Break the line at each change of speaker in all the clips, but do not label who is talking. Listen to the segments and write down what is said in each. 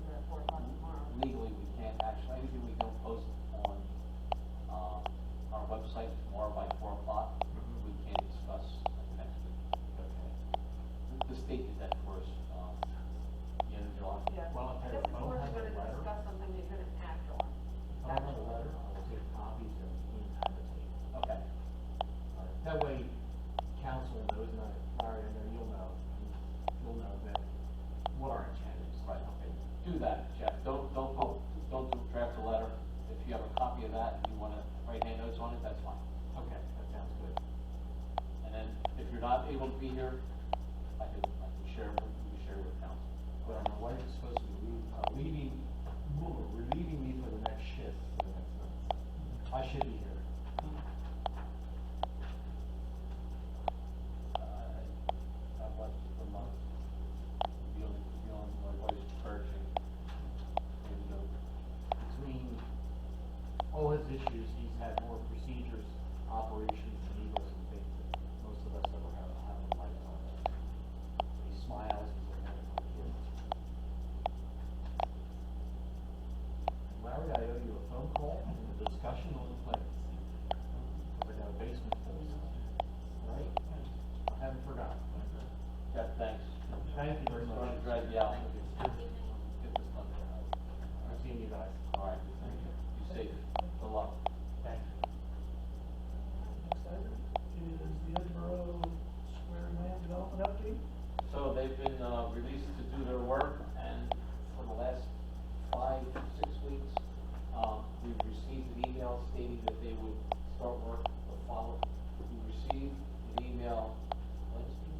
um, um,
that way council knows, and I, Mario, I know you'll know, you'll know that what our intent is.
Right, okay, do that, Jeff, don't, don't, po- don't do- draft a letter, if you have a copy of that, and you wanna write hand notes on it, that's fine.
Okay, that sounds good.
And then, if you're not able to be here, I can, I can share, with- we can share with council.
But I don't know why you're supposed to be leaving, uh, leaving, we're relieving me for the next shift, for the next month. I should be here.
Uh, I watched it for months, be on, be on my wife's church and, and, uh, you know,
Between all his issues, he's had more procedures, operations, and egos and things that most of us ever have, have in life. He smiles, he's "Oh, a wonderful kid. Larry, I owe you a phone call and a discussion on the plans. I got a basement full, so, right? I haven't forgotten.
Jeff, thanks.
Thank you very much.
Sorry to drag you out. Get this done.
I've seen you guys.
All right, thank you, you safe, good luck.
Thank you.
Next item is the Edinburgh Square Land Development Update.
So they've been uh, released to do their work, and for the last five, six weeks, um, we've received an email stating that they would start work the following. We received an email Wednesday,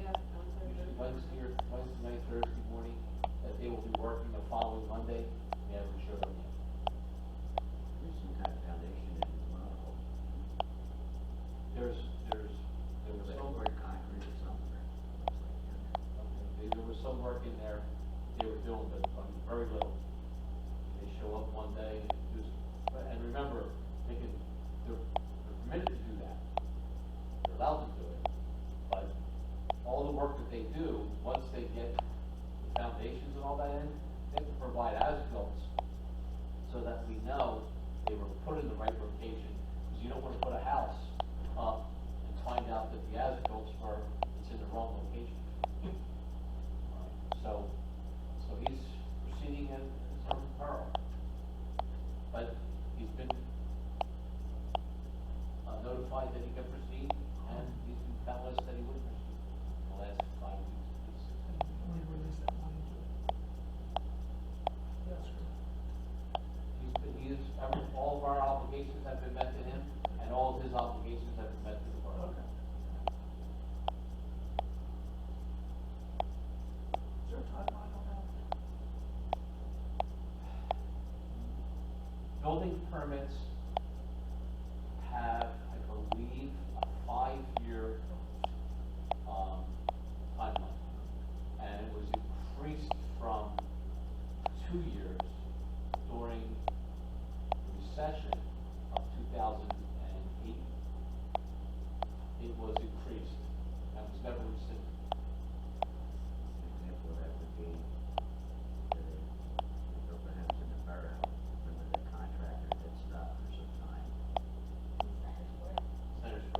Yeah, I'm sorry.
usually Wednesday or Wednesday night, Thursday morning, that they will be working the following Monday, and they haven't showed up yet.
There's some kind of foundation in the model.
There's, there's, there was some
Silver
work,
concrete or something.
okay, there was some work in there they were doing, but um, very little. They show up one day and do, but- and remember, they can, they're they're permitted to do that. They're allowed to do it, but all the work that they do, once they get the foundations and all that in, they have to provide as-built so that we know they were put in the right location, because you don't want to put a house up and find out that the as-built were, it's in the wrong location. So, so he's proceeding in some peril. But he's been uh, notified that he can proceed, and he's been telling us that he would proceed the last five weeks. six weeks.
And we release that money to it. Yes, sir.
He's been, he is, every- all of our obligations have been met to him, and all of his obligations have been met to the borough.
Okay. Is there a timeline on that?
Building permits have, I believe, a five-year, um, timeline. And it was increased from two years during the recession of two thousand and eight. It was increased, and was never rescinded.
Example, that would be, uh, we built a house in the borough, remember the contractor that stopped for some time?
Senator Square.
Yeah.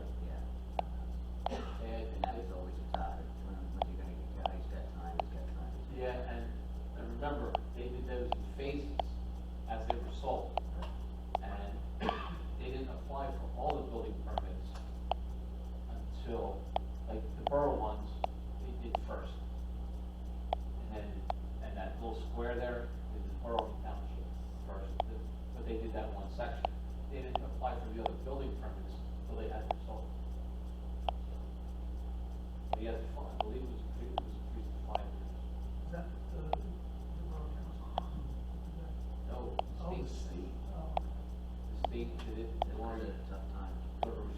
And
Uh, And that was always a topic, when, when you gonna get, he's got time, he's got time. he's got
Yeah, and, and remember, they did those in phases as they were sold. And they didn't apply for all the building permits until, like, the borough ones, they did first. And then, and that little square there, is the borough and township first, th- but they did that one section. They didn't apply for the other building permits until they had them sold. But he has a fine,
Oh,